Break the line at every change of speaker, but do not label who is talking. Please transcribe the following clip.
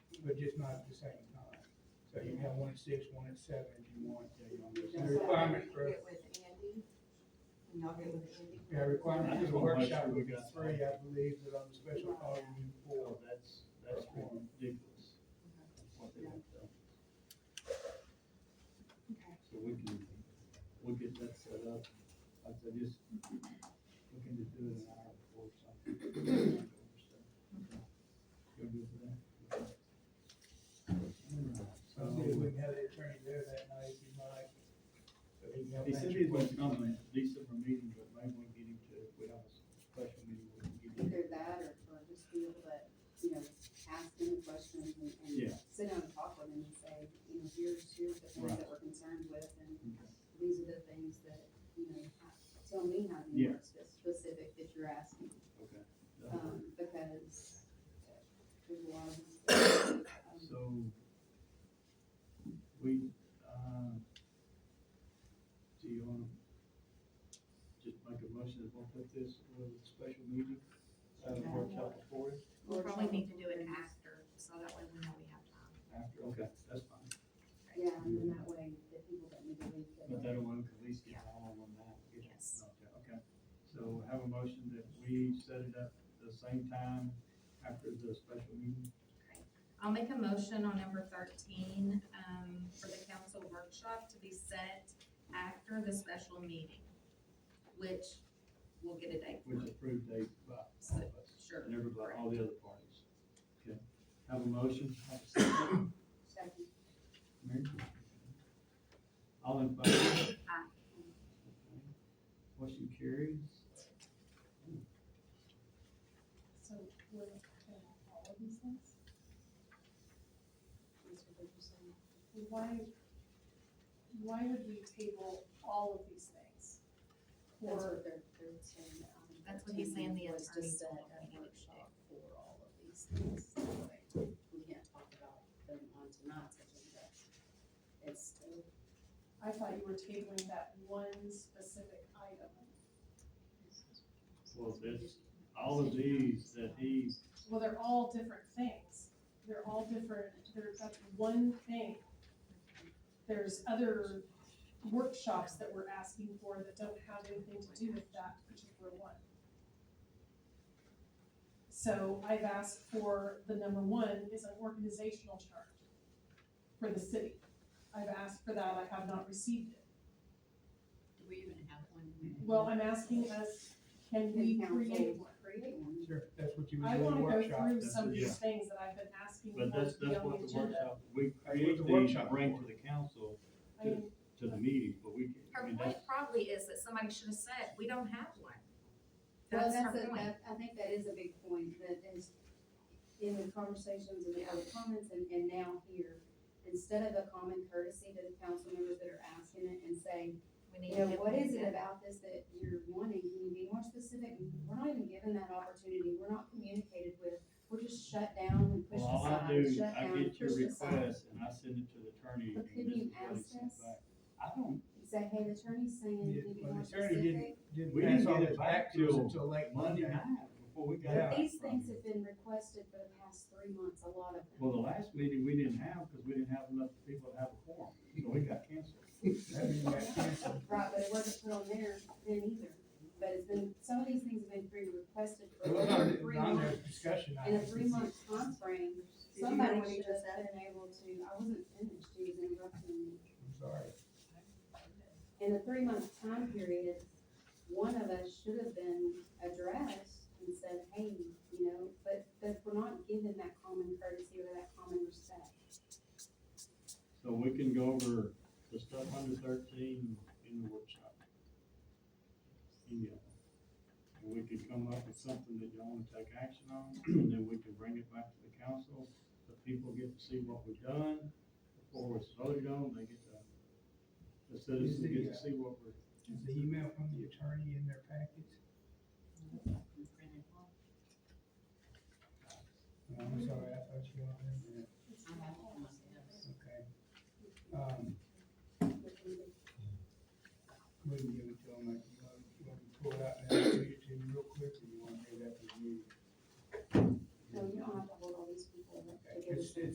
but just not at the same time. So you can have one at six, one at seven if you want, you know,
That's
there's a
what I
requirement
need to
for,
Get with Andy, and y'all get with Andy.
yeah, requirement
I
for
just
the
wanna make
workshop
sure we
would be
got-
three, I believe, but on the special call, we need four.
Well, that's, that's ridiculous. What they have done.
Okay.
So we can, we'll get that set up. I said, just looking to do it an hour before something. You're good with that? Okay. All right,
So see if
so-
we can have the attorney there that night, if you like. So he can help
He said
answer
he was
questions.
coming, December meeting, but maybe we can get him to, if we have a special meeting, we can get him.
either that or, or just be able to, you know, ask them the questions and, and
Yeah.
sit down and talk with them and say, you know, here's, here's the things
Right.
that we're concerned with and
Okay.
these are the things that, you know, tell me how
Yeah.
you work spe- specific that you're asking.
Okay.
Um, because uh, there's a lot of. stuff, um,
So, we, uh, do you wanna just make a motion that we'll put this with a special meeting, uh, have a workshop before it,
We'll probably need to do it after, so that way we know we have time.
after, okay, that's fine.
Yeah, and then that way, the people that need to leave. can-
But that one, at least get all on that. get it
Yes.
knocked out. Okay, so have a motion that we set it up the same time after the special meeting,
I'll make a motion on number thirteen, um, for the council workshop to be set after the special meeting, which we'll get a date for.
which approved date by all of us.
Sure.
And everybody, all the other parties. Okay, have a motion, have a second.
Second.
Mary? All in favor?
Aye.
Motion carries.
So what, all of these things? Mr. Richardson?
why, why would we table all of these things?
That's
Or,
what they're, they're saying. um,
That's what he's saying, the
was to
attorney's
set
not
a
looking at it.
workshop For all of these things, that way we can't talk about them on tonight's agenda. It's still,
I thought you were tabling that one specific item.
Well, this, all of these that he,
Well, they're all different things. They're all different, they're, that's one thing. There's other workshops that we're asking for that don't have anything to do with that particular one. So I've asked for, the number one is an organizational chart for the city. I've asked for that, I have not received it.
do we even have one?
Well, I'm asking us, can we
Can council
create one?
Create one.
Sure, that's what you
I
would do in
wanna
the
go
workshop.
through
that's
some of
what-
these things that I've been asking for
but that's,
to be
that's
on
what
the
the
agenda.
workshop, we
what the
create these,
workshop
bring
for.
to the council,
I mean,
to the meeting, but we can, I
Her
mean,
point
that's,
probably is that somebody should have said, we don't have one.
Well,
That's
that's,
her
a-
point.
that, I think that is a big point, that is, in the conversations and the other comments and, and now here, instead of a common courtesy to the council members that are asking it and say,
We
you
need to
know,
get
what
one
is it
together.
about this that you're wanting, can you be more specific? We're not even given that opportunity, we're not communicated with, we're just shut down and pushed
well, all I do,
aside, shut
I
down, and
get your
pushed aside.
request and I send it to the attorney.
But
and
couldn't
this
you
is what he
ask
sent
us?
back. I don't,
Say, hey, the attorney's saying,
Yeah,
can you be
well, the
more
attorney didn't-
specific?
Didn't
We didn't
pass all
get it
this
back
back to us
till
until late
Monday
Monday.
night, before we got.
Yeah.
back
These
from
things
you.
have been requested for the past three months, a lot of them.
Well, the last meeting we didn't have, because we didn't have enough people to have a forum, so we got canceled.
That means that's canceled.
Right, but it wasn't put on there then either, but it's been, some of these things have been pre-requested for
It wasn't
over
on-
three
on their
months.
discussion
In a
items.
three-month timeframe,
you hear
somebody
what he
should
just
have been able to, I wasn't finished, he was interrupting me.
I'm sorry.
in a three-month time period, one of us should have been addressed and said, hey, you know, but, but we're not given that common courtesy or that common respect.
So we can go over the stuff under thirteen in the workshop. In yellow. And we could come up with something that y'all wanna take action on, and then we can bring it back to the council, the people get to see what we've done, before it's voted on, they get to, the citizens get to see what we're,
Is the email from the attorney in their packets? Oh, No, I'm sorry, I thought you all had it. Um,